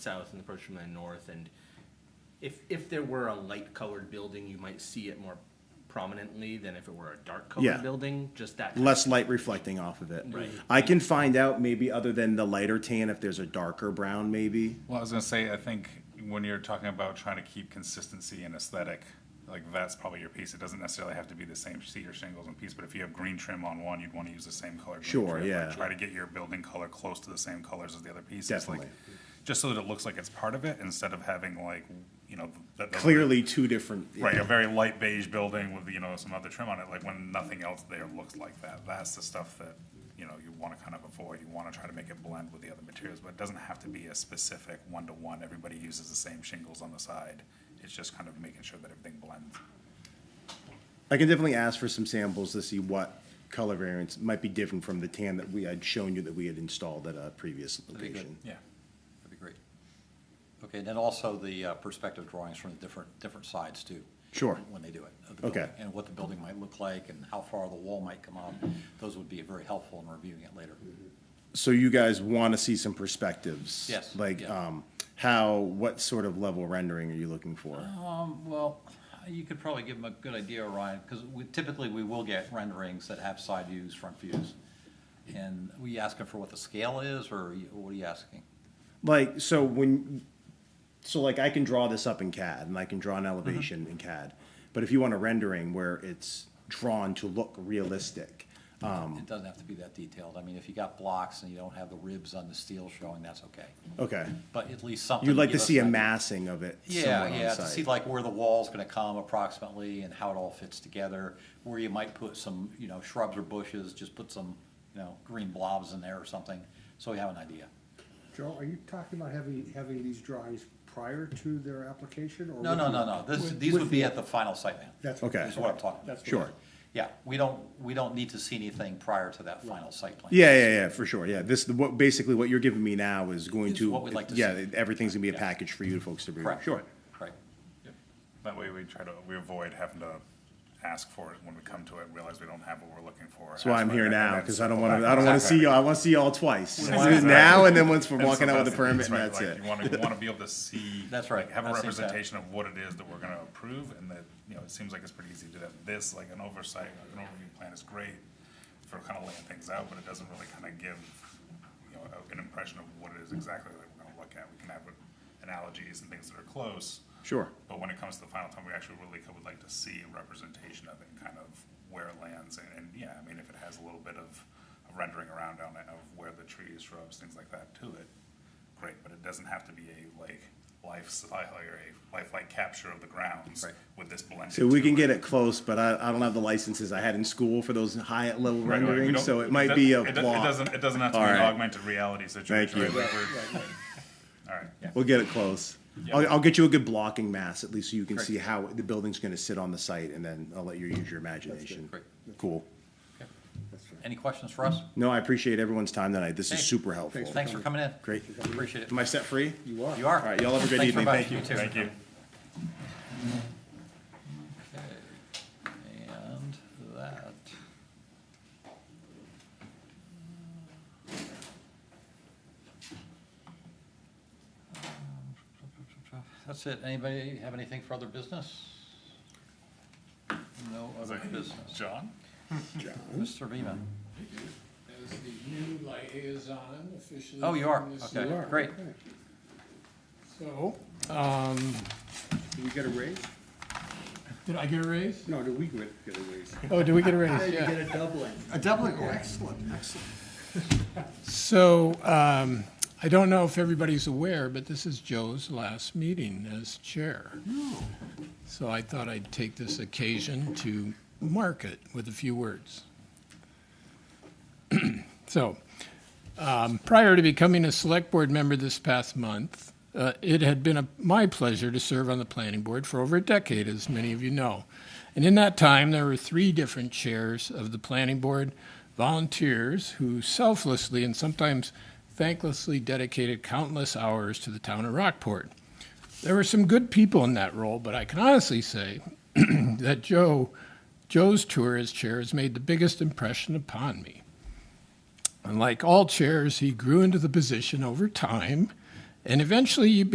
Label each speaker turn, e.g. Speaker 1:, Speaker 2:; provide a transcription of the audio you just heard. Speaker 1: south and the approach from the north, and if, if there were a light colored building, you might see it more prominently than if it were a dark
Speaker 2: Yeah.
Speaker 1: colored building, just that.
Speaker 2: less light reflecting off of it.
Speaker 1: Right.
Speaker 2: I can find out maybe other than the lighter tan if there's a darker brown maybe.
Speaker 3: Well, I was gonna say, I think when you're talking about trying to keep consistency and aesthetic, like that's probably your piece. It doesn't necessarily have to be the same cedar shingles and piece, but if you have green trim on one, you'd wanna use the same color. green
Speaker 2: Sure,
Speaker 3: trim, like,
Speaker 2: yeah.
Speaker 3: Try to get your building color close to the same colors as the other pieces. like,
Speaker 2: Definitely.
Speaker 3: Just so that it looks like it's part of it, instead of having like, you know, that. that-
Speaker 2: Clearly two different.
Speaker 3: Right, a very light beige building with, you know, some other trim on it, like when nothing else there looks like that. That's the stuff that, you know, you wanna kind of avoid, you wanna try to make it blend with the other materials, but it doesn't have to be a specific one-to-one, everybody uses the same shingles on the side. It's just kind of making sure that everything blends.
Speaker 2: I can definitely ask for some samples to see what color variants might be different from the tan that we had shown you that we had installed at a previous
Speaker 4: be good.
Speaker 2: location.
Speaker 3: Yeah.
Speaker 4: That'd be great. Okay, and then also the uh, perspective drawings from the different, different sides too.
Speaker 2: Sure.
Speaker 4: When they do it. of the
Speaker 2: Okay.
Speaker 4: building, And what the building might look like and how far the wall might come out. Those would be very helpful in reviewing it later.
Speaker 2: So you guys want to see some perspectives?
Speaker 4: Yes,
Speaker 2: Like,
Speaker 4: yeah.
Speaker 2: um, how, what sort of level rendering are you looking for?
Speaker 4: Um, well, you could probably give them a good idea, Ryan, because we, typically we will get renderings that have side views, front views. And were you asking for what the scale is or you- what are you asking?
Speaker 2: Like, so when, so like I can draw this up in CAD and I can draw an
Speaker 4: Mm-hmm.
Speaker 2: elevation in CAD, but if you want a rendering where it's drawn to look realistic, Um.
Speaker 4: It doesn't have to be that detailed. I mean, if you got blocks and you don't have the ribs on the steel showing, that's okay.
Speaker 2: okay,
Speaker 4: But at least something.
Speaker 2: you'd like
Speaker 4: give
Speaker 2: to
Speaker 4: us
Speaker 2: see a
Speaker 4: that-
Speaker 2: massing of it.
Speaker 4: Yeah,
Speaker 2: somewhat on
Speaker 4: yeah, to
Speaker 2: site.
Speaker 4: see like where the wall's gonna come approximately and how it all fits together, where you might put some, you know, shrubs or bushes, just put some, you know, green blobs in there or something, so we have an idea.
Speaker 5: Joe, are you talking about having, having these drawings prior to their application or?
Speaker 4: No,
Speaker 5: with
Speaker 4: no, no,
Speaker 5: the-
Speaker 4: no, this,
Speaker 5: with-
Speaker 4: these
Speaker 5: with
Speaker 4: would be at the final site plan.
Speaker 5: That's.
Speaker 2: Okay.
Speaker 4: Is what I'm talking about.
Speaker 5: That's what-
Speaker 2: Sure.
Speaker 4: Yeah, we don't, we don't need to see anything prior to that final site plan.
Speaker 2: Yeah, yeah, yeah, for sure. Yeah, this what basically what you're giving me now is going
Speaker 4: Is
Speaker 2: to
Speaker 4: what we'd like to
Speaker 2: yeah,
Speaker 4: see.
Speaker 2: everything's gonna be a
Speaker 4: Yeah.
Speaker 2: package for you folks to review.
Speaker 4: Correct.
Speaker 2: Sure.
Speaker 4: Right.
Speaker 3: That way we try to, we avoid having to ask for it when we come to it, realize we don't have what we're looking for.
Speaker 2: That's why I'm here now because I don't want to. I
Speaker 3: to.
Speaker 2: don't want to see y'all. I want to see y'all twice. now and then once we're
Speaker 3: And
Speaker 2: walking
Speaker 3: so
Speaker 2: out with
Speaker 3: that's
Speaker 2: the permit,
Speaker 3: piece,
Speaker 2: and
Speaker 3: right,
Speaker 2: that's
Speaker 3: like,
Speaker 2: it.
Speaker 3: You want to, you want to be able to see.
Speaker 4: That's right,
Speaker 3: like, Have a
Speaker 4: that's exact-
Speaker 3: representation of what it is that we're going to approve, and that, you know, it seems like it's pretty easy to do that. This, like, an oversight, an overview plan is great for kind of laying things out, but it doesn't really kind of give, you know, an impression of what it is exactly that we're going to look at. We can have analogies and things that are close.
Speaker 2: Sure.
Speaker 3: But when it comes to the final time, we actually really could- would like to see a representation of it, and kind of where it lands, and, and, yeah, I mean, if it has a little bit of of rendering around on it, of where the trees, shrubs, things like that to it, great, but it doesn't have to be a, like, lifestyle, or a lifelike capture of the grounds
Speaker 4: Right.
Speaker 3: with this blend.
Speaker 2: So we can get it close, but I, I don't have the licenses I had in school for those high level
Speaker 3: Right, right, we
Speaker 2: renderings,
Speaker 3: don't-
Speaker 2: so it might
Speaker 3: do-
Speaker 2: be a
Speaker 3: it do- It
Speaker 2: block.
Speaker 3: doesn't, it doesn't have to be
Speaker 2: All
Speaker 3: an
Speaker 2: right.
Speaker 3: augmented reality situation.
Speaker 2: you.
Speaker 3: right? Like, we're- All right, yeah.
Speaker 2: We'll get it close. I'll, I'll get you a good blocking mass, at least so you can see how the building's gonna sit on the site, and then I'll let you use your imagination.
Speaker 4: Great.
Speaker 2: Cool.
Speaker 4: Any questions for us?
Speaker 2: No, I appreciate everyone's time tonight. This is
Speaker 4: Hey,
Speaker 2: super helpful.
Speaker 4: Thanks for coming in.
Speaker 2: Great.
Speaker 4: Appreciate it.
Speaker 2: Am I set free?
Speaker 5: You are.
Speaker 4: You are.
Speaker 2: All right, y'all have a great
Speaker 4: Thanks
Speaker 2: evening.
Speaker 4: very much.
Speaker 2: Thank you.
Speaker 4: too.
Speaker 3: Thank you.
Speaker 4: Okay, And that. That's it. Anybody have anything for other business? No other business.
Speaker 3: John?
Speaker 4: Mr. Beaman?
Speaker 6: as the new liaison officially.
Speaker 4: Oh, you are.
Speaker 6: from this
Speaker 4: Okay,
Speaker 6: year.
Speaker 4: great.
Speaker 6: So, um,
Speaker 5: Did we get a raise?
Speaker 6: did I get a raise?
Speaker 5: No, did we get get a raise?
Speaker 6: Oh, did we get a raise?
Speaker 5: You
Speaker 6: Yeah.
Speaker 5: get a doubling.
Speaker 6: A doubling, oh,
Speaker 5: Excellent, excellent.
Speaker 6: So um, I don't know if everybody's aware, but this is Joe's last meeting as chair. So I thought I'd take this occasion to mark it with a few words. So, um, prior to becoming a select board member this past month, uh, it had been a, my pleasure to serve on the planning board for over a decade, as many of you know. And in that time, there were three different chairs of the planning board, volunteers who selflessly and sometimes thanklessly dedicated countless hours to the town of Rockport. There were some good people in that role, but I can honestly say that Joe, Joe's tour as chair has made the biggest impression upon me. And like all chairs, he grew into the position over time and eventually you